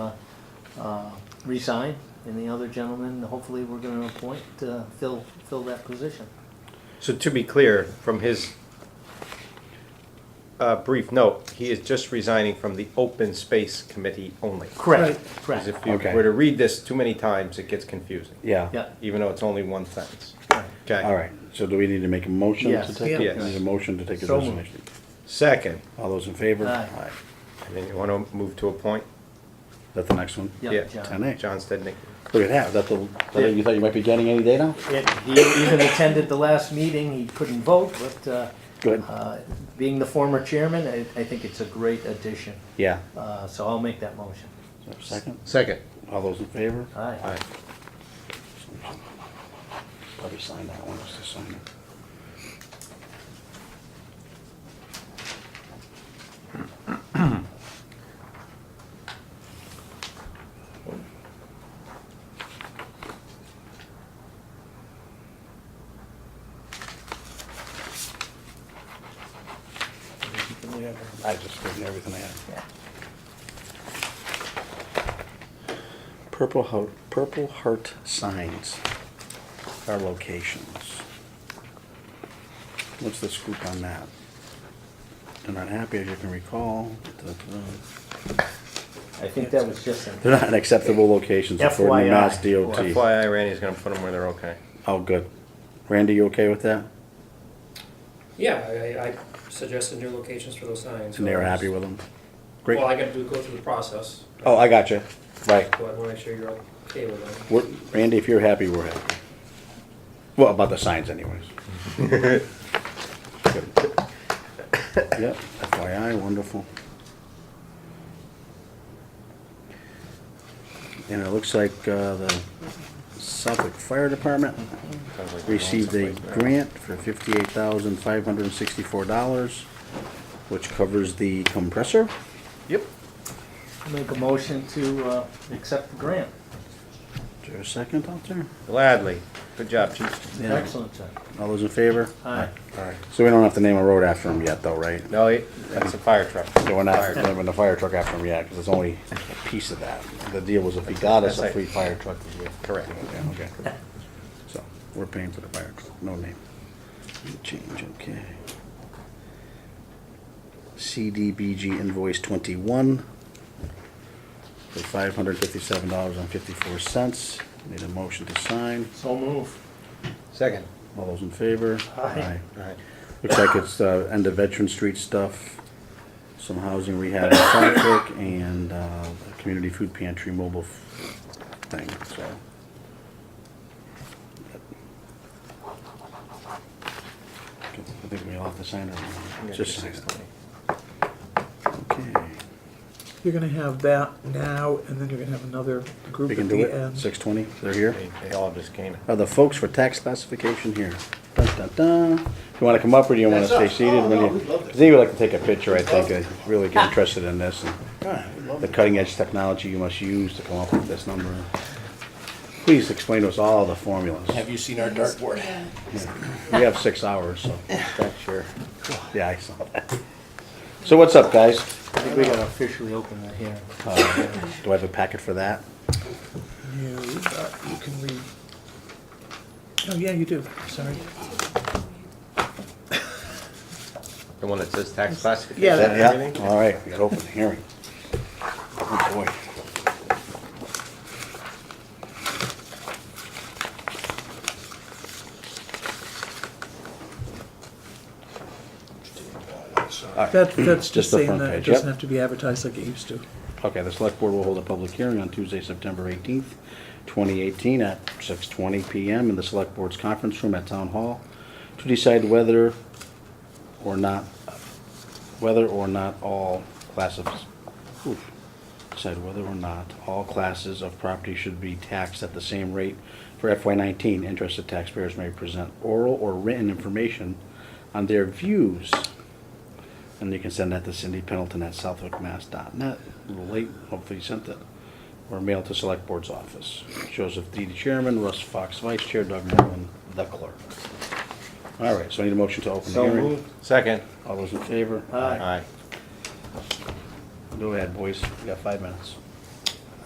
uh, resign, and the other gentleman, hopefully, we're gonna appoint to fill, fill that position. So to be clear, from his uh, brief note, he is just resigning from the Open Space Committee only. Correct, Because correct, if you Okay. were to read this too many times, it gets confusing, Yeah, yeah. even though it's only one sentence. right. Okay. all right, so do we need to make a motion to Yes. take it? Yes. Need a motion to take a So moved. resignation? Second, All those in favor? Aye. and then you want to move to a point? Is that the next one? Yeah, Yeah. John. Ten A. John Stednick. Look at that, that the, that it you thought you might be getting any day now? It- He even attended the last meeting, he couldn't vote, but uh, Good, uh, being the former chairman, I I think it's a great addition. yeah. Uh, So I'll make that motion. Is there a Second, Second. all those in favor? Aye. Aye. Probably sign that one, just to sign it. I just gave you everything I had. Yeah. Purple Heart, Purple Heart signs are locations. What's the scoop on that? They're not happy, as you can recall. I think that was just an They're not acceptable locations according FYI. to Mass DOT. FYI, Randy's going to put them where they're okay. Oh, good. Randy, you okay with that? Yeah, I, I suggested new locations for those signs. And they're happy with them? Great. Well, I gotta do, go through the process, Oh, I got you. Right. so I wanna make sure you're okay with them. We're- Randy, if you're happy, we're happy. Well, about the signs anyways. Good. Yep, FYI, wonderful. And it looks like uh, the Suffolk Fire Department Sounds like they're going received a someplace now. grant for fifty-eight thousand five hundred and sixty-four dollars, which covers the compressor. Yep. Make a motion to uh, accept the grant. Is there a second out there? Gladly. Good job, chief. Yeah. Excellent, sir. All those in favor? Aye. All right. So we don't have to name a road after him yet, though, right? No, it- that's a fire truck. So we're not Fire truck. having a fire truck after him yet, because it's only a piece of that. The deal was if he got us a That's free right. fire truck, we would. Correct. Yeah, okay. So, we're paying for the fire truck, no name. Change, okay. CDBG invoice twenty-one for five hundred fifty-seven dollars and fifty-four cents. Need a motion to sign. So move. Second. All those in favor? Aye. All right. Looks like it's uh, end of Veteran Street stuff, some housing rehab in Southwick, and uh, a community food pantry mobile f- thing, so. I think we all have to sign it. Just sign it. Okay. You're gonna have that now, and then you're gonna have another group We can at do the it. end. Six twenty, they're here. They they all just came. Are the folks for tax classification here? Dun, dun, dun. You wanna come up or do you wanna stay seated? When you- Zee would like to take a picture, I think, I really get interested in this and the cutting edge technology you must use to come up with this number. Please explain to us all the formulas. Have you seen our dartboard? We have six hours, so that's your, yeah, I saw that. So what's up, guys? I think we gotta officially open that here. Uh, Do I have a packet for that? You, uh, you can read. Oh, yeah, you do, sorry. The one that says tax classification? Yeah, and Yeah, everything? all right, we got open hearing. Oh, boy. That, that's Just just the saying front that it page, yep. doesn't have to be advertised like it used to. Okay, the select board will hold a public hearing on Tuesday, September eighteenth, twenty eighteen, at six twenty PM in the select board's conference room at Town Hall to decide whether or not, whether or not all classes, oof, decide whether or not all classes of property should be taxed at the same rate for FY nineteen. Interested taxpayers may present oral or written information on their views and you can send that to Cindy Pendleton at southwickmass.net. A little late, hopefully you sent it. Or mail to Select Board's office. Joseph D. Chairman, Russ Fox Vice Chair, Doug Merlin, the clerk. All right, so I need a motion to open the So hearing. moved. Second. All those in favor? Aye. Aye. Go ahead, boys, you got five minutes.